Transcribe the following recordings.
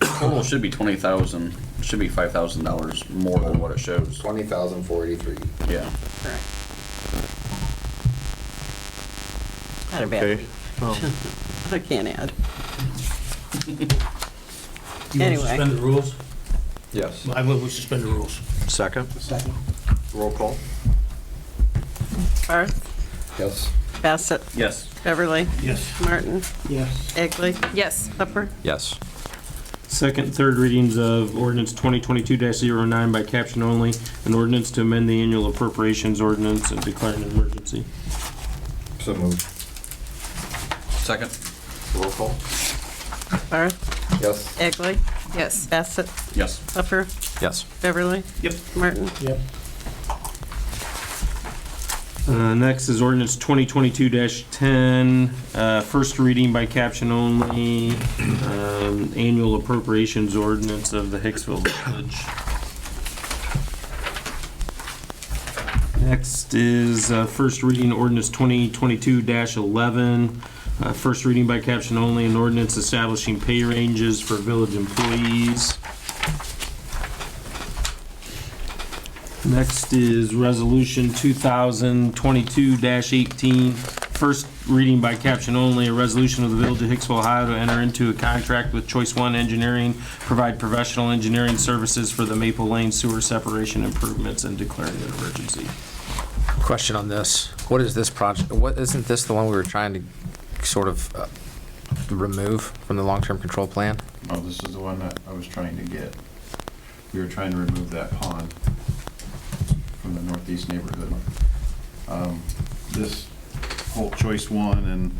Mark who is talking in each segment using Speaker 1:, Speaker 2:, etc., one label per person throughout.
Speaker 1: Total should be twenty thousand, should be five thousand dollars more than what it shows,
Speaker 2: Twenty thousand four eighty-three.
Speaker 1: yeah.
Speaker 3: Correct. Had a bad
Speaker 4: Okay.
Speaker 3: week.
Speaker 4: Um,
Speaker 3: I can't add.
Speaker 5: You want to
Speaker 3: Anyway.
Speaker 5: suspend the rules?
Speaker 2: Yes.
Speaker 5: I move we suspend the rules.
Speaker 4: Second?
Speaker 2: Roll call?
Speaker 3: Barth,
Speaker 2: Yes.
Speaker 3: Bassett,
Speaker 1: Yes.
Speaker 3: Beverly,
Speaker 5: Yes.
Speaker 3: Martin,
Speaker 5: Yes.
Speaker 3: Egley,
Speaker 6: Yes.
Speaker 3: Upper.
Speaker 4: Yes.
Speaker 7: Second, third readings of ordinance 2022-09 by caption only, an ordinance to amend the annual appropriations ordinance and declare an emergency.
Speaker 2: So moved.
Speaker 1: Second?
Speaker 2: Roll call?
Speaker 3: Barth,
Speaker 2: Yes.
Speaker 3: Egley,
Speaker 6: Yes.
Speaker 3: Bassett,
Speaker 1: Yes.
Speaker 3: Upper,
Speaker 4: Yes.
Speaker 3: Beverly,
Speaker 5: Yep.
Speaker 3: Martin.
Speaker 5: Yep.
Speaker 7: Uh, Next is ordinance 2022-10, uh, first reading by caption only, um, annual appropriations ordinance of the Hicksville Village. Next is uh, first reading ordinance 2022-11, uh, first reading by caption only, an ordinance establishing pay ranges for village employees. Next is Resolution 2022-18, first reading by caption only, a resolution of the Village of Hicksville, Ohio to enter into a contract with Choice One Engineering, provide professional engineering services for the Maple Lane sewer separation improvements and declaring an emergency.
Speaker 8: Question on this. What is this project, what, isn't this the one we were trying to sort of uh, remove from the long-term control plan?
Speaker 9: Oh, this is the one that I was trying to get. We were trying to remove that pond from the northeast neighborhood. Um, This whole choice one and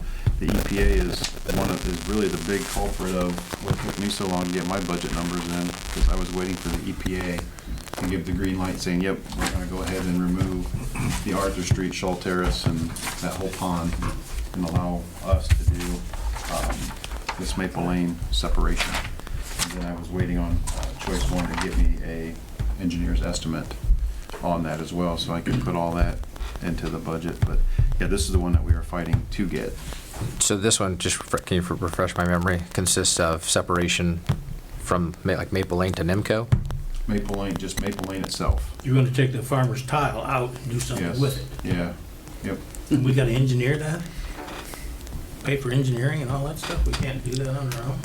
Speaker 9: the EPA is one of, is really the big culprit of what took me so long to get my budget numbers in, because I was waiting for the EPA to give the green light saying, yep, we're gonna go ahead and remove the Arthur Street, Shaw Terrace, and that whole pond, and allow us to do, um, this Maple Lane separation. And Then I was waiting on uh, Choice One to get me a engineer's estimate on that as well, so I can put all that into the budget, but, yeah, this is the one that we are fighting to get.
Speaker 8: So this one, just, refre- can you re- refresh my memory, consists of separation from Ma- like Maple Lane to Nimco?
Speaker 9: Maple Lane, just Maple Lane itself,
Speaker 5: You're gonna take the farmer's tile out and do something
Speaker 9: yes.
Speaker 5: with it.
Speaker 9: Yeah, yep,
Speaker 5: And we gotta engineer that? Pay for engineering and all that stuff? We can't do that on our own?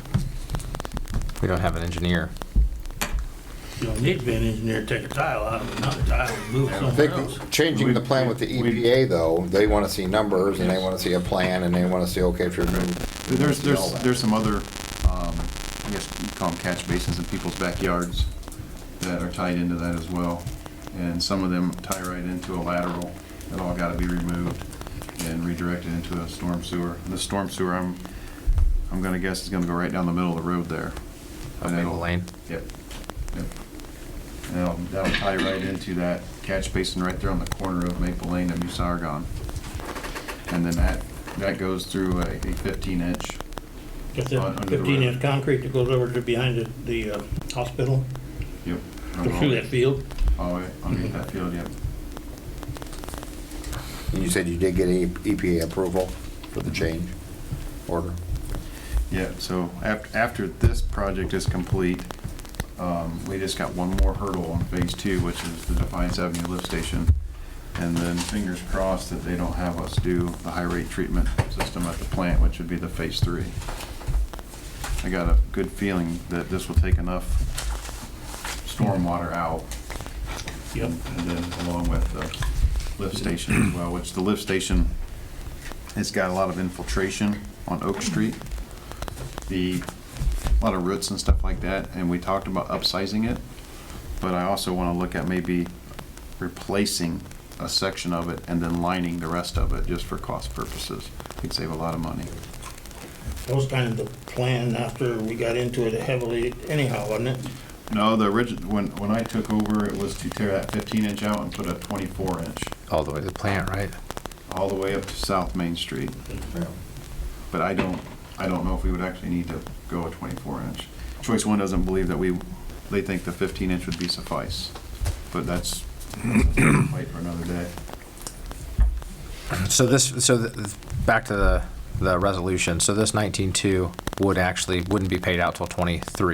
Speaker 8: We don't have an engineer.
Speaker 5: You don't need to be an engineer to take a tile out of another tile and move it
Speaker 2: I
Speaker 5: somewhere else.
Speaker 2: think changing the plan with the EPA though, they want to see numbers and they want to see a plan and they want to see, okay, if you're.
Speaker 9: There's, there's, there's some other, um, I guess you call them catch basins in people's backyards that are tied into that as well. And some of them tie right into a lateral that all gotta be removed and redirected into a storm sewer. And the storm sewer, I'm, I'm gonna guess is gonna go right down the middle of the road there.
Speaker 8: Of
Speaker 9: And
Speaker 8: Maple
Speaker 9: it'll-
Speaker 8: Lane?
Speaker 9: Yep, yep. And that'll, that'll tie right into that catch basin right there on the corner of Maple Lane and Musaragon. And then that, that goes through a a fifteen inch
Speaker 5: Just
Speaker 9: On-
Speaker 5: that
Speaker 9: under the
Speaker 5: fifteen
Speaker 9: road.
Speaker 5: inch concrete that goes over to behind the, the uh, hospital,
Speaker 9: Yep.
Speaker 5: goes through that field.
Speaker 9: Oh, wait, underneath that field, yep.
Speaker 2: You said you did get E- EPA approval for the change order?
Speaker 9: Yeah, so after, after this project is complete, um, we just got one more hurdle on phase two, which is the Defiance Avenue lift station. And then fingers crossed that they don't have us do the high rate treatment system at the plant, which would be the phase three. I got a good feeling that this will take enough stormwater out
Speaker 5: Yep.
Speaker 9: And then along with the lift station as well, which the lift station has got a lot of infiltration on Oak Street. The, a lot of roots and stuff like that, and we talked about upsizing it. But I also want to look at maybe replacing a section of it and then lining the rest of it just for cost purposes. We'd save a lot of money.
Speaker 5: That was kind of the plan after we got into it heavily anyhow, wasn't it?
Speaker 9: No, the origin, when, when I took over, it was to tear that fifteen inch out and put a twenty-four inch
Speaker 8: All the way to the plant, right?
Speaker 9: all the way up to South Main Street. But I don't, I don't know if we would actually need to go a twenty-four inch. Choice one doesn't believe that we, they think the fifteen inch would be suffice, but that's, wait for another day.
Speaker 8: So this, so the, back to the, the resolution, so this 19-2 would actually, wouldn't be paid out till 23?